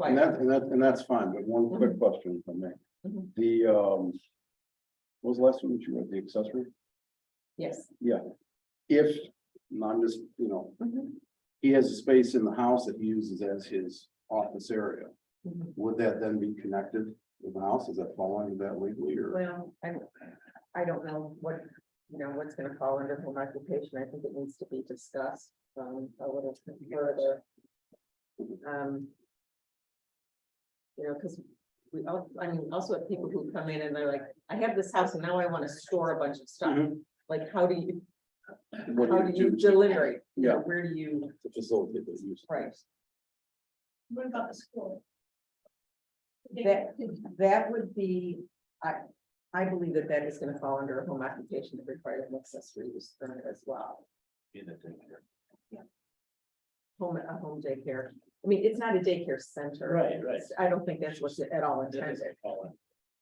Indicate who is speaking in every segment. Speaker 1: And that, and that, and that's fine, but one quick question from me.
Speaker 2: Mhm.
Speaker 1: The, um. What was the last one that you read, the accessory?
Speaker 2: Yes.
Speaker 1: If, and I'm just, you know,
Speaker 2: Mhm.
Speaker 1: he has a space in the house that he uses as his office area.
Speaker 2: Mhm.
Speaker 1: Would that then be connected with the house? Is that following that legally or?
Speaker 2: Well, I, I don't know what, you know, what's gonna fall under home occupation. I think it needs to be discussed, um, a little further. Um. You know, cause we, al- I mean, also have people who come in and they're like, I have this house and now I wanna store a bunch of stuff.
Speaker 1: Mhm.
Speaker 2: Like, how do you,
Speaker 1: What
Speaker 2: how do you delineate? You know,
Speaker 1: Yeah.
Speaker 2: Where do you,
Speaker 1: To facilitate this use.
Speaker 2: right?
Speaker 3: What about the school?
Speaker 2: That, that would be, I, I believe that that is gonna fall under a home occupation that requires an accessory use permit as well. Home, a home daycare, I mean, it's not a daycare center.
Speaker 4: Right, right.
Speaker 2: I don't think that's what's at all intended,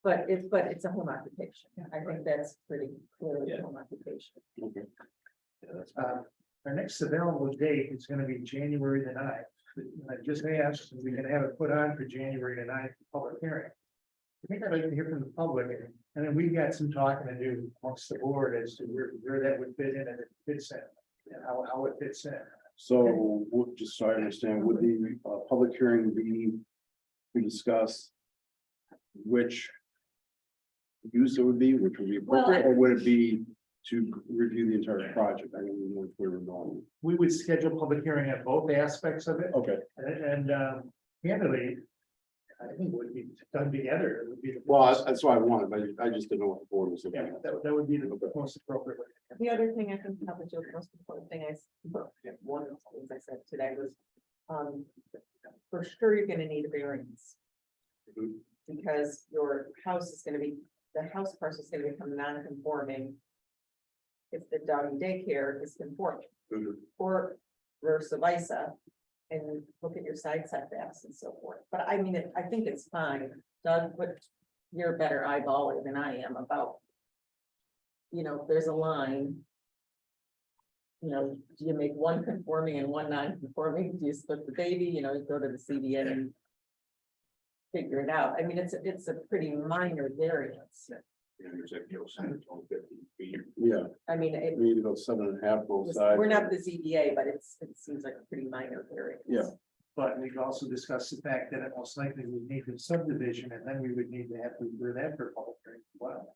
Speaker 2: but it's, but it's a home occupation, I think that's pretty clearly a
Speaker 4: Yeah.
Speaker 2: home occupation.
Speaker 1: Okay.
Speaker 4: Uh, Our next available date is gonna be January the ninth. I just asked, if we can have it put on for January the ninth, public hearing. I think I'd like to hear from the public, and then we've got some talking to do amongst the board as to where, where that would fit in and it fits in, and how, how it fits in.
Speaker 1: So, would- just so I understand, would the, uh, public hearing be to discuss which use it would be, which would be appropriate, or would it be to review the entire project? I don't even know if we were going.
Speaker 4: We would schedule public hearing at both aspects of it,
Speaker 1: Okay,
Speaker 4: and, and, um, candidly, I think it would be done together, it would be. the-
Speaker 1: well, that's- that's what I wanted, but I just didn't know what the board was looking
Speaker 4: Yeah,
Speaker 1: at.
Speaker 4: that, that would be the most appropriate way.
Speaker 2: The other thing I think probably the most important thing I, s- one of the things I said today was, um, for sure you're gonna need a variance.
Speaker 1: Mhm.
Speaker 2: Because your house is gonna be, the house parcel is gonna become non-conforming. If the dog and daycare is conforming,
Speaker 1: Mhm.
Speaker 2: or versa versa. And look at your side setbacks and so forth, but I mean, it- I think it's fine, Doug, but you're a better eyeballer than I am about. You know, there's a line. You know, do you make one conforming and one non-conforming? Do you split the baby? You know, you go to the CBN and. Figure it out. I mean, it's, a it's a pretty minor variance.
Speaker 1: Yeah,
Speaker 2: I mean, it,
Speaker 1: we need to go seven and a half both sides.
Speaker 2: we're not the ZBA, but it's, it seems like a pretty minor variance.
Speaker 1: Yeah.
Speaker 4: But we could also discuss the fact that it most likely would need a subdivision and then we would need to have to do that for public hearing. as well.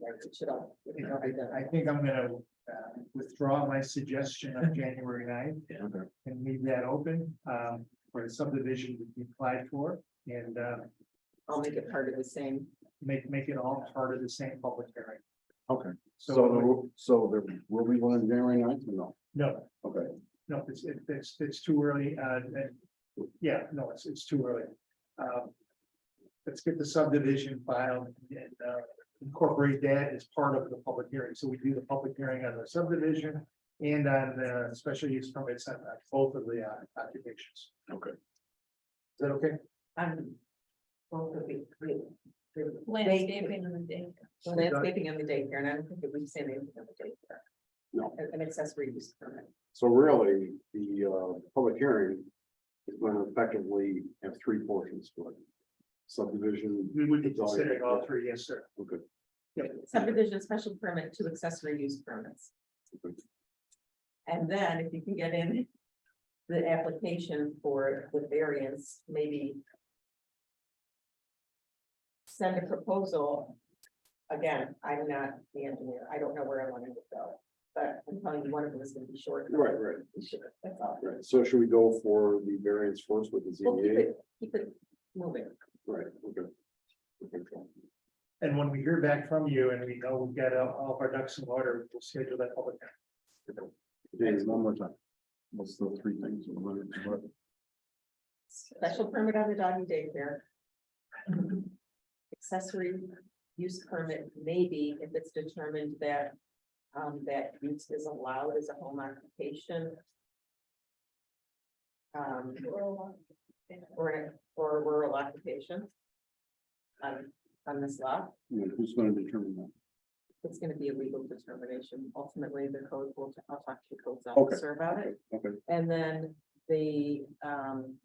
Speaker 2: Right, it should all- it
Speaker 4: You
Speaker 2: should
Speaker 4: know,
Speaker 2: all be done.
Speaker 4: I, I think I'm gonna uh, withdraw my suggestion of January 9th
Speaker 1: Okay.
Speaker 4: and leave that open um for a subdivision to be applied for and uh
Speaker 2: I'll make it part of the same.
Speaker 4: make, make it all part of the same public hearing.
Speaker 1: Okay, so,
Speaker 4: So, it would-
Speaker 1: there- so there will be one in January ninth or no?
Speaker 4: no,
Speaker 1: Okay,
Speaker 4: No, it's, it- it's, it's too early, uh, and- yeah, no, it's, it's too early. Um, Let's get the subdivision filed and uh, incorporate that as part of the public hearing, so we do the public hearing on the subdivision. And on the special use permits on on both of the uh, occupations,
Speaker 1: okay.
Speaker 4: is that okay?
Speaker 2: Um, both of the, the- the
Speaker 3: Landscaping and the day.
Speaker 2: daycare- Landscaping and the daycare, and I don't think it would say anything on the daycare.
Speaker 1: No.
Speaker 2: An- An accessory use permit.
Speaker 1: So really, the uh public hearing is going to effectively have three portions to it. Subdivision.
Speaker 4: We would be considering all three, yes, sir.
Speaker 1: Okay.
Speaker 2: Subdivision special permit to accessory use permits. And then if you can get in the application for the variance, maybe send a proposal. Again, I'm not the engineer. I don't know where I want it to go, but I'm telling you, one of them is gonna be short.
Speaker 1: Right, right,
Speaker 2: We should- That's all.
Speaker 1: right. So should we go for the variance first with the
Speaker 2: Well, keep
Speaker 1: ZBA?
Speaker 2: it, keep it moving.
Speaker 1: Right, okay. Okay.
Speaker 4: And when we hear back from you and we know we've got uh, all of our ducks in order, we'll schedule that public. hearing.
Speaker 1: James, one more time. What's the three things? we're looking for?
Speaker 2: Special permit on the dog and daycare. Accessory use permit maybe if it's determined that. Um, that use is allowed as a home occupation. Um, or, or rural occupation. On, on this lot,
Speaker 1: You know, Who's going to determine that?
Speaker 2: it's gonna be a legal determination. Ultimately, the code will, I'll talk to the codes
Speaker 1: Okay.
Speaker 2: officer about it.
Speaker 1: Okay,
Speaker 2: And then the um